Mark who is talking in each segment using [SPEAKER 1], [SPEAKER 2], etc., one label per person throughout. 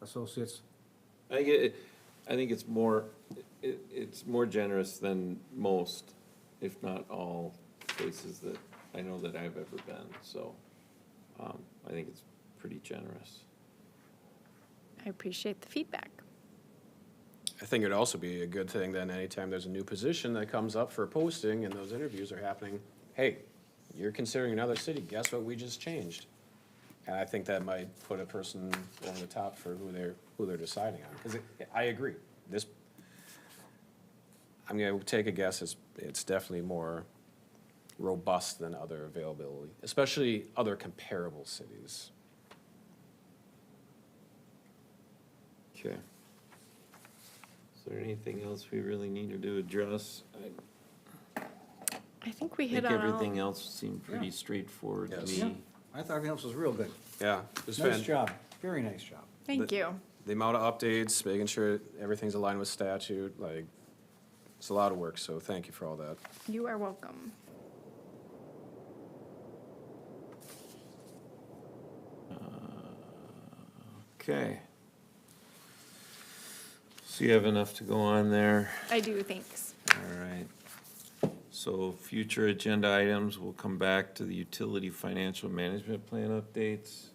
[SPEAKER 1] Associates.
[SPEAKER 2] I think it, I think it's more, it, it's more generous than most, if not all, places that I know that I've ever been, so, um, I think it's pretty generous.
[SPEAKER 3] I appreciate the feedback.
[SPEAKER 4] I think it'd also be a good thing then anytime there's a new position that comes up for posting and those interviews are happening, hey, you're considering another city, guess what we just changed? And I think that might put a person over the top for who they're, who they're deciding on, because I agree, this, I'm gonna take a guess, it's, it's definitely more robust than other availability, especially other comparable cities.
[SPEAKER 2] Okay. Is there anything else we really needed to address? I
[SPEAKER 3] I think we hit
[SPEAKER 2] think
[SPEAKER 3] on all.
[SPEAKER 2] everything else seemed pretty
[SPEAKER 1] Yeah.
[SPEAKER 2] straightforward to
[SPEAKER 4] Yes.
[SPEAKER 2] me.
[SPEAKER 1] I thought everything else was real good.
[SPEAKER 4] Yeah. it was
[SPEAKER 1] Nice
[SPEAKER 4] fan-
[SPEAKER 1] job, very nice job.
[SPEAKER 3] Thank
[SPEAKER 4] the-
[SPEAKER 3] you.
[SPEAKER 4] the amount of updates, making sure everything's aligned with statute, like, it's a lot of work, so thank you for all that.
[SPEAKER 3] You are welcome.
[SPEAKER 2] Okay. So you have enough to go on there?
[SPEAKER 3] I do, thanks.
[SPEAKER 2] All right. So future agenda items, we'll come back to the utility financial management plan updates.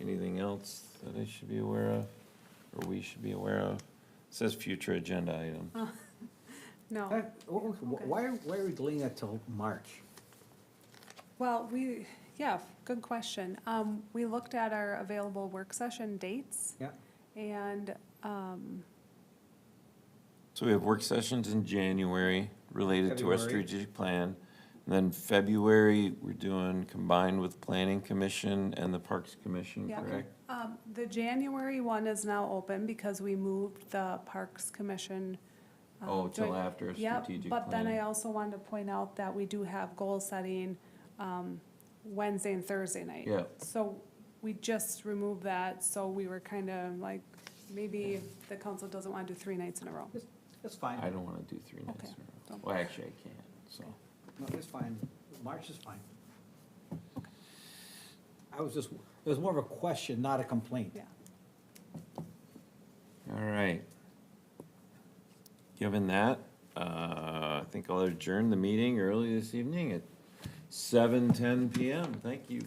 [SPEAKER 2] Anything else that I should be aware of, or we should be aware of? It Says future agenda
[SPEAKER 5] Oh.
[SPEAKER 2] item.
[SPEAKER 5] No, Oh.
[SPEAKER 1] That- wh- wh- Why, why are we delaying that till March?
[SPEAKER 5] well, we, yeah, good question. Um, we looked at our available work session dates
[SPEAKER 1] Yeah,
[SPEAKER 5] and, um,
[SPEAKER 2] So we have work sessions in January related to our
[SPEAKER 1] February.
[SPEAKER 2] strategic plan. And then February, we're doing combined with planning commission and the Parks Commission,
[SPEAKER 5] Yeah.
[SPEAKER 2] correct?
[SPEAKER 5] um, the January one is now open because we moved the Parks Commission. um,
[SPEAKER 2] Oh, till
[SPEAKER 5] joint-
[SPEAKER 2] after a
[SPEAKER 5] Yep,
[SPEAKER 2] strategic
[SPEAKER 5] But then I
[SPEAKER 2] plan.
[SPEAKER 5] also wanted to point out that we do have goal setting, um, Wednesday and Thursday night.
[SPEAKER 2] Yeah.
[SPEAKER 5] So we just removed that, so we were kind of like, maybe the council doesn't want to do three nights in a row.
[SPEAKER 1] it's, it's
[SPEAKER 2] I
[SPEAKER 1] fine,
[SPEAKER 2] don't wanna do three nights in
[SPEAKER 5] Okay.
[SPEAKER 2] a row. Well, actually, I can't, so.
[SPEAKER 1] no, it's fine, March is fine. I was just, it was more of a question, not a complaint.
[SPEAKER 5] Yeah.
[SPEAKER 2] All right. Given that, uh, I think I'll adjourn the meeting early this evening at seven ten PM. Thank you.